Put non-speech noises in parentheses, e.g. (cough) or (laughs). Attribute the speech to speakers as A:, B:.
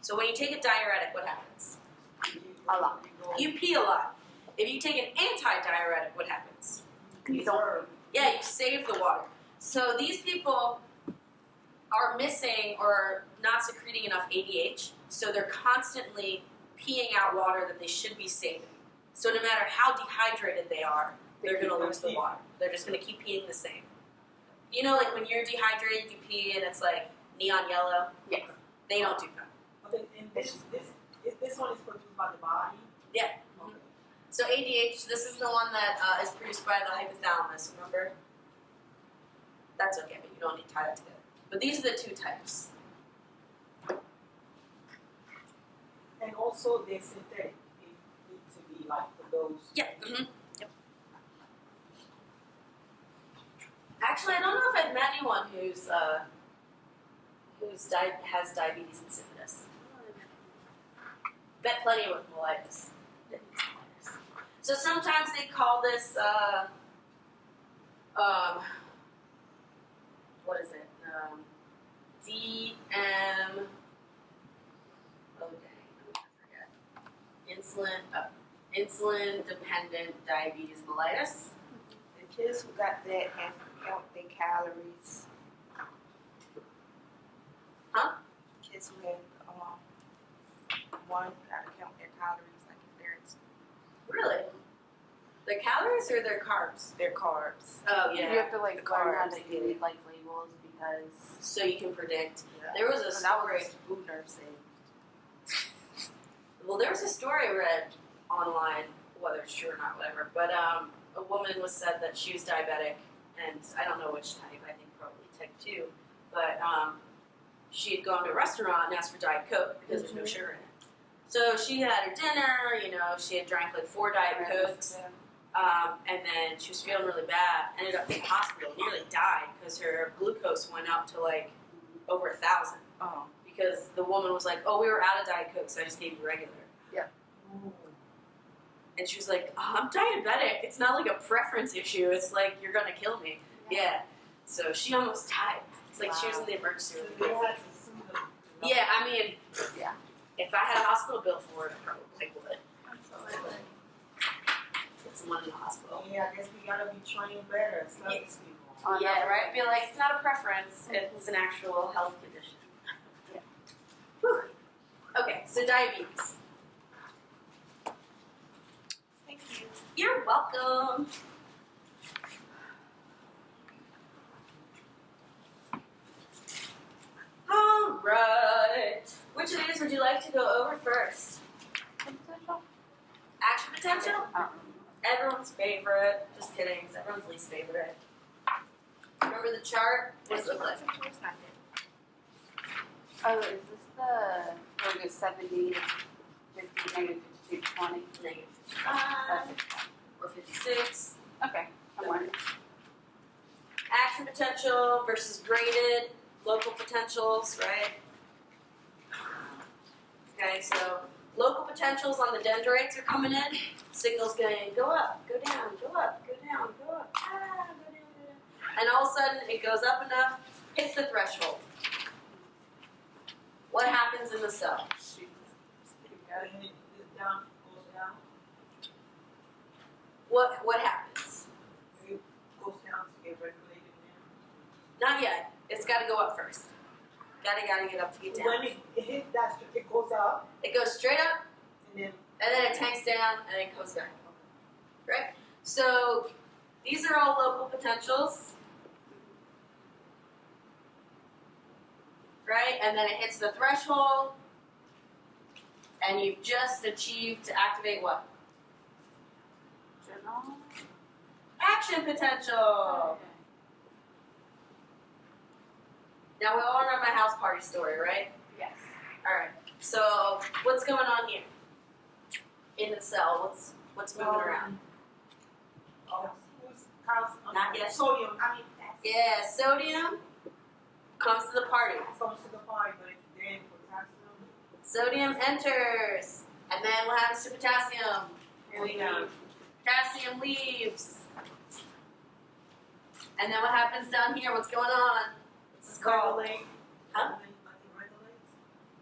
A: So when you take a diuretic, what happens?
B: A lot.
A: You pee a lot. If you take an anti-diuretic, what happens?
B: You don't.
A: Yeah, you save the water. So these people are missing or not secreting enough ADH, so they're constantly peeing out water that they should be saving. So no matter how dehydrated they are, they're going to lose the water. They're just going to keep peeing the same. You know, like when you're dehydrated, you pee and it's like neon yellow.
B: Yes.
A: They don't do that.
C: Okay, and this, this, this one is produced by the body.
A: Yeah.
C: Okay.
A: So ADH, this is the one that uh, is produced by the hypothalamus. Remember? That's okay, but you don't need to tie that together. But these are the two types.
C: And also they're synthetic. They need to be like for those.
A: Yep. hmm Yep. Actually, I don't know if I've met anyone who's uh, who's di- has diabetes and insipidus. Bet plenty with mellitus. So sometimes they call this uh, um, what is it? Um, DM. Oh dang, I forget. Insulin. Uh, insulin dependent diabetes mellitus.
D: The kids who got that have to count their calories.
A: Huh?
D: Kids who have, um, one gotta count their calories, like if they're, it's
A: Really? Their calories or their carbs?
D: their carbs.
A: Oh,
B: You have to
D: The
B: like learn how
D: carbs.
B: to read like labels because
A: So you can predict. There was a
D: When I
A: story.
D: was food nursing,
A: (laughs) Well, there was a story I read online, whether it's true or not, whatever. But um, a woman was said that she was diabetic, and I don't know which type. I think probably type two. But um, she had gone to a restaurant and asked for diet coke because there's no
D: Mm-hmm.
A: sugar in it. So she had her dinner. You know, she had drank like four diet cokes. Um, and then she was feeling really bad. Ended up in the hospital. Nearly died because her glucose went up to like over a thousand.
D: um,
A: Because the woman was like, "Oh, we were out of diet coke, so I just gave you regular." And she was like, oh, "I'm diabetic. It's not like a preference issue. It's like you're gonna kill me." Yeah. So she almost died. It's like she was in the emergency
C: So
A: room.
C: they had to sue them.
A: Yeah, I mean,
B: Yeah.
A: If I had a hospital bill for it, I probably would. Put someone in the hospital.
C: Yeah, I guess we gotta be trained better as
A: Yeah.
C: service people.
B: on
A: yeah,
B: that-
A: right. Be like, it's not a preference. It's an actual health condition.
B: Yeah.
A: Whew. Okay, so diabetes.
D: Thank you.
A: You're welcome. All right. Which of these would you like to go over first? Action potential?
B: Um,
A: Everyone's favorite. Just kidding. It's everyone's least favorite. Remember the chart? What does it look like?
D: It's not that.
B: Oh, is this the, oh, the seventy, fifty, negative fifty-two, twenty?
A: Negative 55 or 56.
B: Okay, I'm learning.
A: Action potential versus graded local potentials, right? Okay, so local potentials on the dendrites are coming in. Signals going go up, go down, go up, go down, go up, ah, go down, go down. And all of a sudden it goes up enough, hits the threshold. What happens in the cell?
C: And it, it down, goes down,
A: What what happens?
C: it goes down to get regulated now.
A: Not yet. It's got to go up first. Gotta gotta get up to get down.
C: When it, it hits that, str- it goes up
A: It goes straight up,
C: and then
A: and then it tanks down, and then it comes back. Right? So these are all local potentials. Right? And then it hits the threshold, and you've just achieved to activate what?
B: Journal?
A: Action potential! Now we all remember my house party story, right?
B: Yes.
A: Alright, so what's going on here? In the cell, what's what's moving around?
C: um, Oh, who's calcium?
A: Not yet.
C: Sodium. I mean, that's
A: Yeah, sodium comes to the party.
C: comes to the body, but it's then potassium.
A: Sodium enters, and then what happens to potassium?
C: Here we go.
A: Potassium leaves. And then what happens down here? What's going on? What's this called?
C: Regulate.
A: Huh?